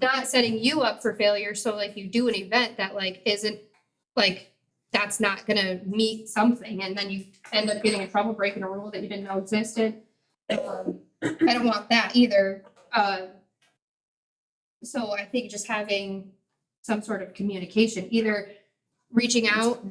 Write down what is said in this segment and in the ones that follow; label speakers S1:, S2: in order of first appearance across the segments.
S1: not setting you up for failure. So like you do an event that like isn't like that's not gonna meet something, and then you end up getting in trouble breaking a rule that you didn't know existed. Um, I don't want that either. Uh, so I think just having some sort of communication, either reaching out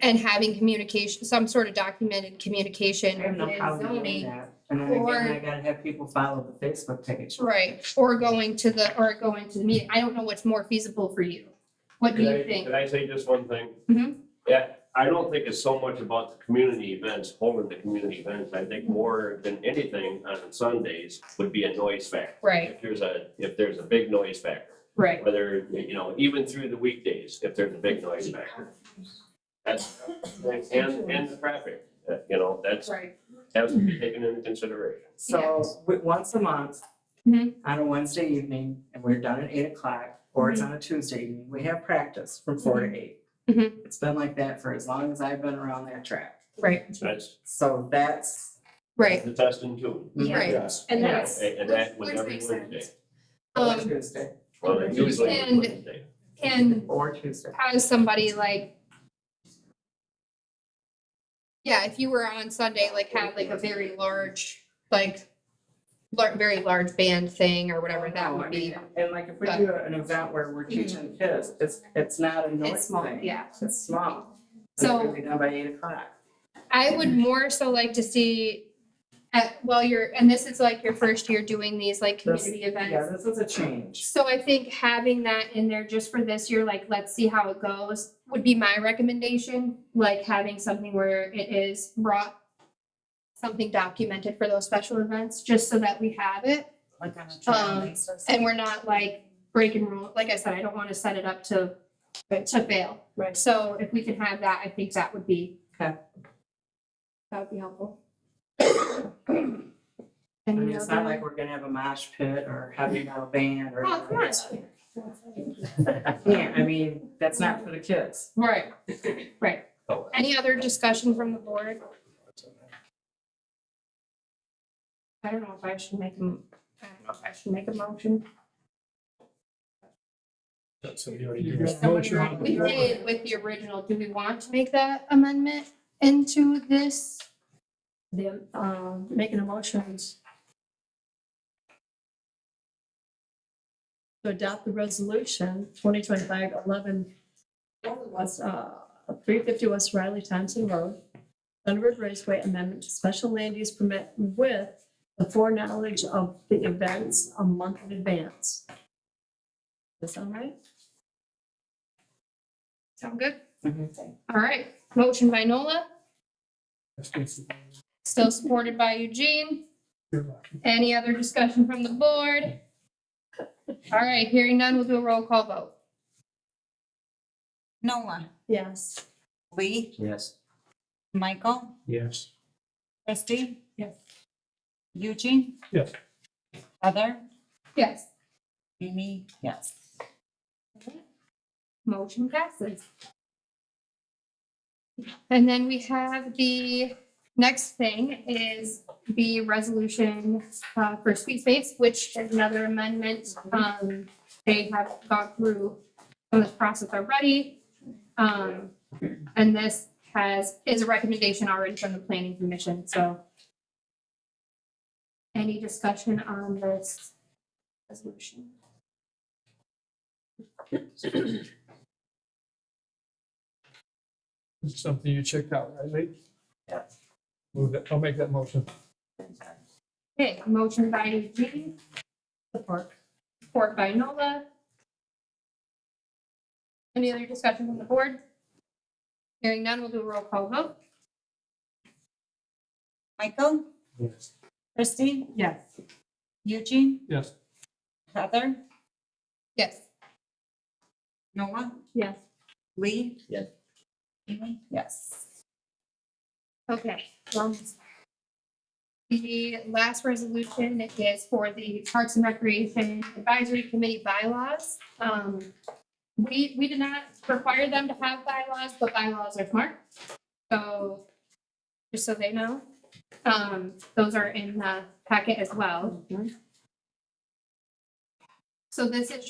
S1: and having communication, some sort of documented communication.
S2: I have no
S1: with
S2: problem doing
S1: zoning.
S2: that. And then again,
S1: or-
S2: I gotta have people follow the Facebook page.
S1: Right, or going to the, or going to the meeting. I don't know what's more feasible for you. What do
S3: Can I,
S1: you think?
S3: can I say just one thing?
S1: Mhm.
S3: Yeah, I don't think it's so much about the community events, holding the community events. I think more than anything on Sundays would be a noise factor.
S1: Right,
S3: If there's a, if there's a big noise factor,
S1: right.
S3: whether, you know, even through the weekdays, if there's a big noise factor. That's, and, and the traffic, uh, you know, that's,
S1: Right.
S3: has to be taken into consideration.
S2: So, wi- once a month,
S1: Mhm.
S2: on a Wednesday evening, and we're done at eight o'clock, or
S1: Mm-hmm.
S2: it's on a Tuesday evening, we have practice from four to eight.
S1: Mhm.
S2: It's been like that for as long as I've been around that track.
S1: Right,
S3: That's
S2: So that's.
S1: right.
S3: the test in tune.
S1: Right.
S2: Yes.
S1: And
S2: Yes.
S1: that's-
S3: And and that was
S1: Which
S3: every
S1: makes
S3: Wednesday.
S2: Or
S1: Um,
S2: Tuesday,
S3: Well, usually it's
S1: And-
S3: Wednesday.
S1: and
S2: or Tuesday.
S1: as somebody like. Yeah, if you were on Sunday, like have like a very large, like, lar- very large band thing or whatever that
S2: No, I
S1: would be.
S2: mean, And like if we
S1: But- Mm-hmm.
S2: do an event where we're teaching kids, it's, it's not a noise
S1: It's small,
S2: thing.
S1: yeah.
S2: It's small.
S1: So-
S2: It's gonna be done by eight o'clock.
S1: I would more so like to see, at, well, you're, and this is like your first year doing these like
S2: This-
S1: community events.
S2: Yeah, this is a change.
S1: So I think having that in there just for this year, like, let's see how it goes, would be my recommendation. Like having something where it is brought, something documented for those special events, just so that we have it.
S4: Like on a
S1: Um,
S4: trial basis.
S1: And we're not like breaking rule, like I said, I don't want to set it up to, to fail.
S4: Right.
S1: So if we can have that, I think that would be.
S2: Okay.
S1: That would be helpful.
S2: I
S1: Any
S2: mean, it's not
S1: other-
S2: like we're gonna have a mosh pit or heavy metal band or.
S1: Oh, come on.
S2: Yeah, I mean, that's not for the kids.
S1: Right, right. Any other discussion from the board? I don't know if I should make them, I don't know if I should make a motion.
S5: So we already
S4: You
S5: did.
S4: got
S1: Somebody wrote- We did with the original, do we want to make that amendment into this?
S4: Them, um, making emotions. To adopt the resolution twenty twenty-five eleven. Was, uh, three fifty West Riley Thompson Road. Thunderbird Raceway Amendment to Special Land Use Permit with the foreknowledge of the events a month in advance. Does that sound right?
S1: Sound good?
S2: Mhm.
S1: All right, motion by Nola,
S5: You're
S1: still supported by Eugene.
S5: welcome.
S1: Any other discussion from the board? All right, hearing none, we'll do a roll call vote.
S6: Nola,
S4: Yes.
S6: Lee,
S2: Yes.
S6: Michael,
S5: Yes.
S6: Christie.
S4: Yes.
S6: Eugene.
S5: Yes.
S6: Heather,
S1: Yes.
S6: Amy, yes.
S1: Motion passes. And then we have the next thing is the resolution uh, for Sweet Space, which is another amendment. Um, They have gone through some of this process already. Um, And this has, is a recommendation already from the planning commission, so. Any discussion on this resolution?
S5: This is something you checked out, right, Lee?
S2: Yes.
S5: Move that, I'll make that motion.
S1: Okay, motion by Eugene.
S4: Support.
S1: Support by Nola. Any other discussion from the board? Hearing none, we'll do a roll call vote.
S6: Michael,
S5: Yes.
S6: Christie,
S4: Yes.
S6: Eugene,
S5: Yes.
S6: Heather,
S1: Yes.
S6: Nola,
S4: Yes.
S6: Lee.
S2: Yes.
S6: Amy, yes.
S1: Okay. um, The last resolution is for the Parks and Recreation Advisory Committee bylaws. Um, We, we did not require them to have bylaws, but bylaws are smart. So just so they know, um, those are in the packet as well. So this is